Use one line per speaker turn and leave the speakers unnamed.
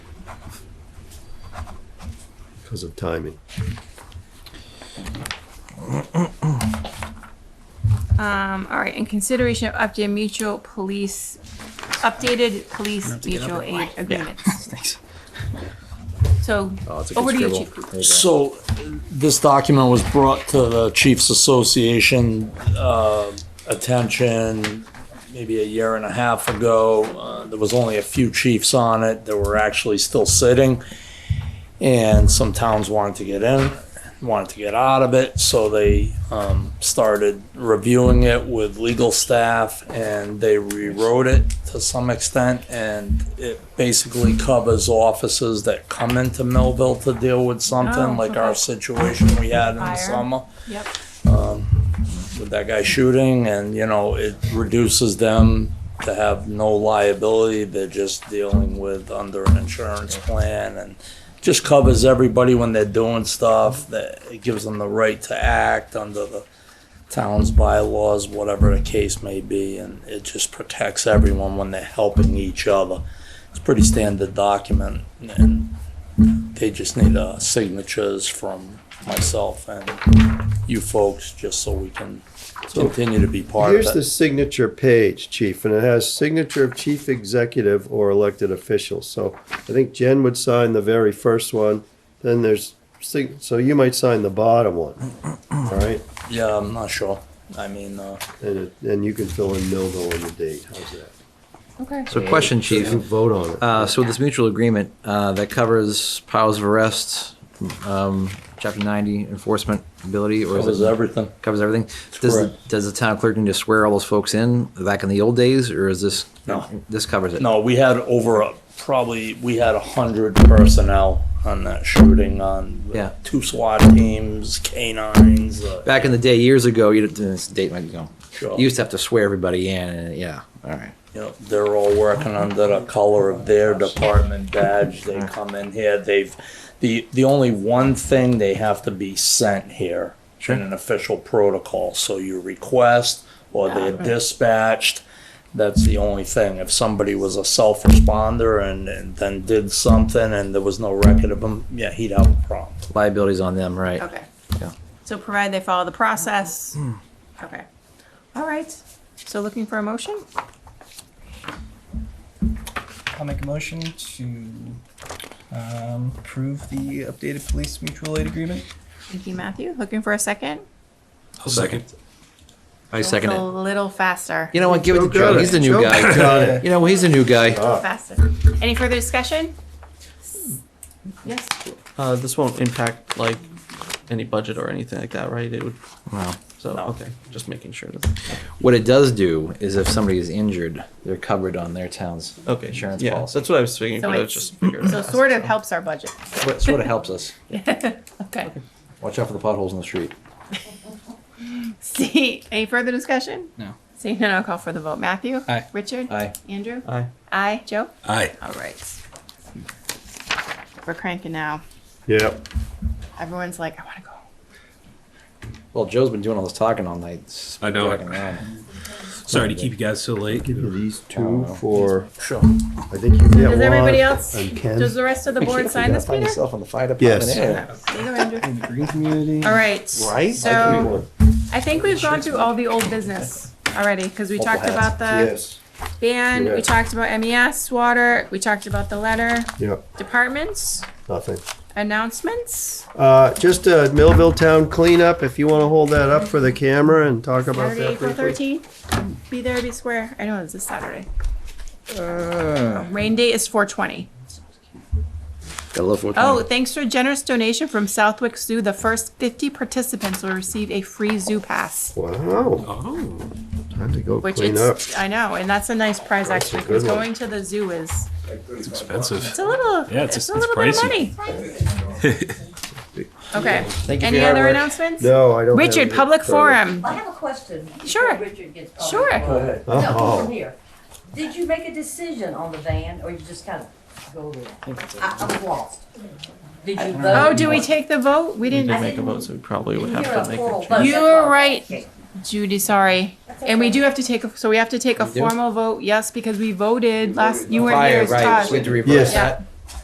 because of timing.
Um, all right, in consideration of updated mutual police, updated police
to get up
mutual aid
and-
agreements.
Thanks.
So,
Oh, it's a good
over to you,
scribble.
Chief.
So this document was brought to the Chiefs Association uh, attention maybe a year and a half ago. Uh, There was only a few chiefs on it that were actually still sitting. And some towns wanted to get in, wanted to get out of it, so they um, started reviewing it with legal staff and they rewrote it to some extent. And it basically covers offices that come into Millville to deal with
Oh,
something, like our
okay.
situation we had in the
Fire.
summer
Yep,
with that guy shooting and, you know, it reduces them to have no liability. They're just dealing with under an insurance plan and just covers everybody when they're doing stuff. That it gives them the right to act under the town's bylaws, whatever the case may be, and it just protects everyone when they're helping each other. It's a pretty standard document and they just need uh signatures from myself and you folks, just so we can continue to be part
Here's
of
the
it.
signature page, chief, and it has signature of chief executive or elected officials. So I think Jen would sign the very first one, then there's, sig- so you might sign the bottom one, all right?
Yeah, I'm not sure. I mean, uh,
And, it- and you can fill in Millville on the date, how's that?
okay.
So question,
You can
chief.
vote on it.
Uh, so with this mutual agreement, uh, that covers powers of arrest, um, chapter ninety enforcement ability, or is
covers
it?
everything.
Covers everything? Does, the-
correct.
does the town clerk need to swear all those folks in, back in the old days, or is this?
No.
This covers it?
No, we had over a, probably we had a hundred personnel on that shooting on the
Yeah.
two SWAT teams, canines. Uh,
Back in the day, years ago, you, this date might go.
Sure.
You used to have to swear everybody in, and, yeah, all right.
you know, they're all working under the color of their department badge. They come in here. They've the the only one thing they have to be sent here in an official protocol. So you request or they're dispatched. That's the only thing. If somebody was a self responder and, and then did something and there was no record of him, yeah, he'd have a problem.
Liability's on them, right?
Okay.
Yeah.
So provided they follow the process. Okay. All right. So looking for a motion?
I'll make a motion to um, approve the updated police mutual aid agreement.
Thank you, Matthew. Looking for a second?
second.
I second
A
it.
little faster.
You know what, give it to Joe, he's the new
Joe
guy.
got it.
You know, he's the new guy.
Faster. Any further discussion? Yes.
Uh, this won't impact like any budget or anything like that, right? It would,
Wow.
so,
No.
okay, just making sure that,
What it does do is if somebody is injured, they're covered on their town's
okay.
insurance
Yeah,
policy.
that's what I was thinking,
So
but I
it's-
was just figuring.
So sort of helps our budget.
That's sort of helps us.
Okay.
Watch out for the potholes in the street.
See, any further discussion?
No.
Seeing none, I'll call for the vote. Matthew?
Aye.
Richard?
Aye.
Andrew?
Aye.
Aye. Joe?
Aye.
All right. We're cranking now.
Yep,
Everyone's like, I want to go.
Well, Joe's been doing all this talking all night.
I know.
Fucking man.
Sorry to keep you guys so late.
these two for,
Sure.
I think you get one.
Does everybody else,
And Ken.
does the rest of the board sign this,
Find
Peter?
yourself on the fire department.
Yes.
Yeah.
There you go, Andrew.
In the green community.
All right.
Right?
So I think we've gone through all the old business already because we talked
Multiple
about the
Yes,
ban, we
Yes.
talked about MES, water, we talked about the letter,
yep,
departments,
nothing.
announcements.
Uh, just a Millville Town cleanup, if you wanna hold that up for the camera and talk about
Saturday,
that
April
briefly.
thirteenth. Be there, be square. I know it's this Saturday.
Ah.
Oh, Rain date is four twenty.
Gotta love what
Oh, thanks to a generous donation from Southwick Zoo, the first fifty participants will receive a free zoo pass.
Wow,
Oh.
time to go
Which
clean up.
it's, I know, and that's a nice prize
That's a
actually,
good
because
one.
going to the zoo is,
It's expensive.
it's a little,
Yeah, it's-
it's a
it's
little bit of
pricey.
money. Okay,
you for
any other
your hard work.
announcements?
No, I don't. have
Richard,
any
public
further.
forum.
I have a question. before
Sure.
Richard gets going.
Sure.
No,
Oh.
from here. Did you make a decision on the van, or you just kind of go there? I, I was lost. Did you vote?
Oh, do we take the vote? We
We did
didn't,
make a vote, so we probably would
Didn't
have
hear a
to make a
formal
change.
vote.
You're right. Judy, sorry. And we do have to take, a so we have to take a
We do?
formal vote, yes, because we voted last, you were
Fire,
here,
right,
Todd.
we had to reverse
Yes.
Yeah,
that.